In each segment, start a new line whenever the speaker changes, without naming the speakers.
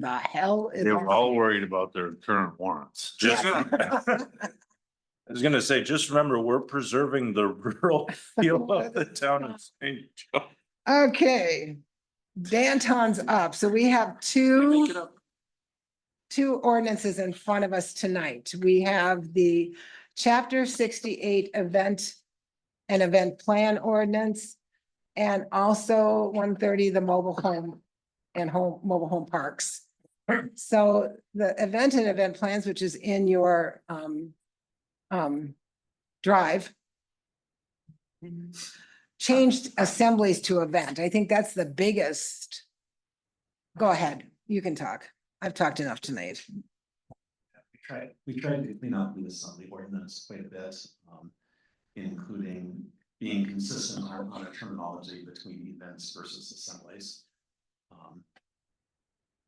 the hell? is
They were all
on?
worried about their current warrants.
Just. I was gonna say, just remember, we're preserving the rural feel of the town of St. Joe.
Okay, Danton's up, so we have two. Two ordinances in front of us tonight. We have the chapter sixty-eight event. And event plan ordinance. And also one thirty, the mobile home and home, mobile home parks. So the event and event plans, which is in your um. Um, drive changed assemblies to event. I think that's the biggest. Go ahead, you can talk. I've talked enough tonight.
We tried, we tried to clean up the assembly ordinance quite a bit, um, including being consistent on, on a terminology between events versus assemblies. Um,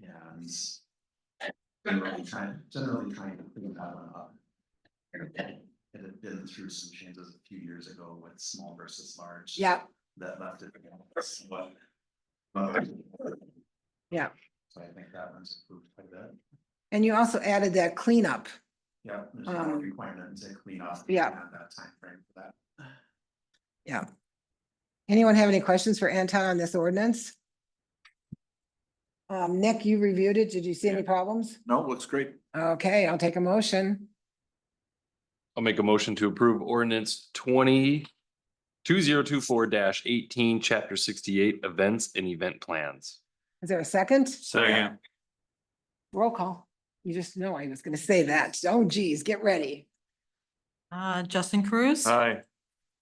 And generally trying, generally trying to clean that one up. It had been through some changes a few years ago with small versus large.
Yeah,
That left it. somewhat- but-
Yeah.
So I think that one's improved quite a bit.
and you also added that cleanup.
Yeah, there's not a
Um,
requirement to clean up.
yeah.
at That timeframe for that.
Anyone have any questions for Anton on this ordinance? Um, Nick, you reviewed it. Did you see any problems?
No, looks great.
Okay, I'll take a motion.
I'll make a motion to approve ordinance twenty two zero two four dash eighteen, chapter sixty-eight, events and event plans.
Is there a second?
Second.
Roll call. You just know I was gonna say that. Oh geez, get ready.
Uh, Justin Cruz,
Aye.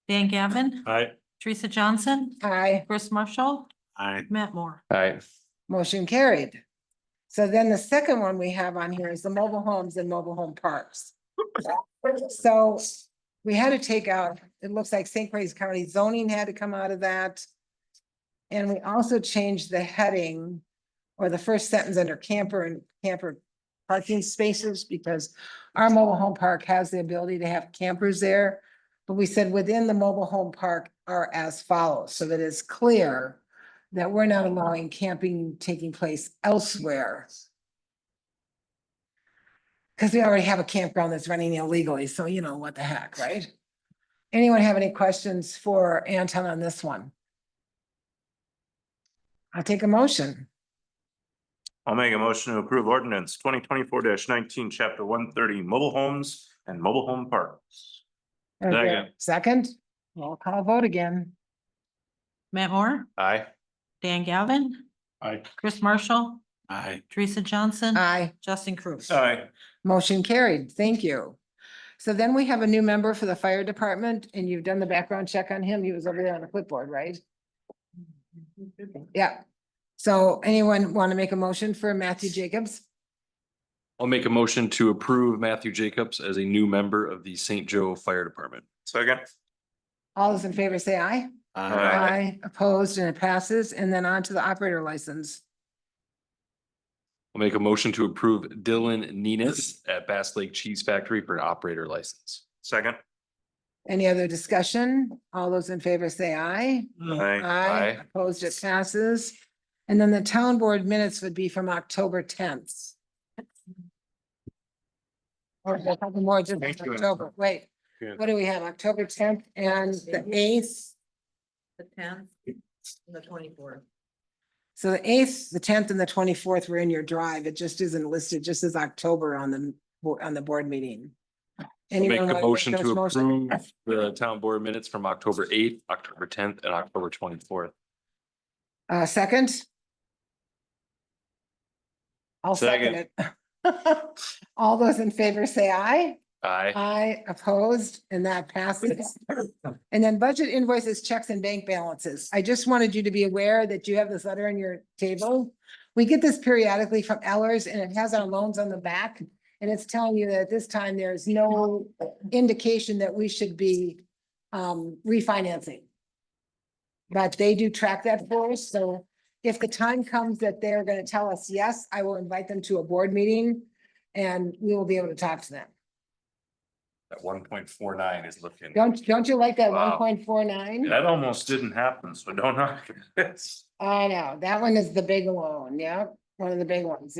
Dan Gavin,
I,
Teresa Johnson,
Aye.
Chris Marshall,
Aye.
Matt Moore.
All right,
Motion carried. So then the second one we have on here is the mobile homes and mobile home parks. So we had to take out, it looks like St. Croix County zoning had to come out of that. And we also changed the heading or the first sentence under camper and camper parking spaces because our mobile home park has the ability to have campers there. But we said within the mobile home park are as follows, so that it's clear that we're not allowing camping taking place elsewhere. Because we already have a campground that's running illegally, so you know what the heck, right? Anyone have any questions for Anton on this one? I'll take a motion.
I'll make a motion to approve ordinance twenty twenty-four nineteen, chapter one thirty, mobile homes and mobile home parks.
Is there a
Second.
Second, roll call vote again.
Matt Moore,
aye.
Dan Gavin.
Aye.
Chris Marshall,
Aye.
Teresa Johnson,
Aye.
Justin Cruz.
Aye.
Motion carried, thank you. So then we have a new member for the fire department and you've done the background check on him. He was over there on the clipboard, right? Yeah. So anyone want to make a motion for Matthew Jacobs?
I'll make a motion to approve Matthew Jacobs as a new member of the St. Joe Fire Department.
Second.
All those in favor say aye.
Aye.
Opposed and it passes. And then on to the operator license.
I'll make a motion to approve Dylan Nenis at Bass Lake Cheese Factory for an operator license.
Second.
Any other discussion? All those in favor say aye.
Aye.
Aye.
Opposed, it passes. And then the town board minutes would be from October tenth. Or we'll have more just
Thank you.
October, wait,
Good.
what do we have? October tenth and the eighth?
The tenth and the twenty-fourth.
So the eighth, the tenth and the twenty-fourth were in your drive. It just isn't listed, just as October on the, bo- on the board meeting.
I'll Make
Anyone wanna
a motion
those
to
motions?
approve the town board minutes from October eighth, October tenth, and October twenty-fourth.
Uh, second? I'll second it. All those in favor say aye.
Aye.
Aye, opposed, and that passes. And then budget invoices, checks and bank balances. I just wanted you to be aware that you have this letter on your table. We get this periodically from Ellers and it has our loans on the back. And it's telling you that at this time, there is no indication that we should be um refinancing. But they do track that for us, so if the time comes that they're gonna tell us yes, I will invite them to a board meeting. And we will be able to talk to them.
At one point four nine is looking.
Don't, don't you like that one
Wow.
point four nine?
That almost didn't happen, so don't knock it.
I know, that one is the big one, yeah, one of the big ones,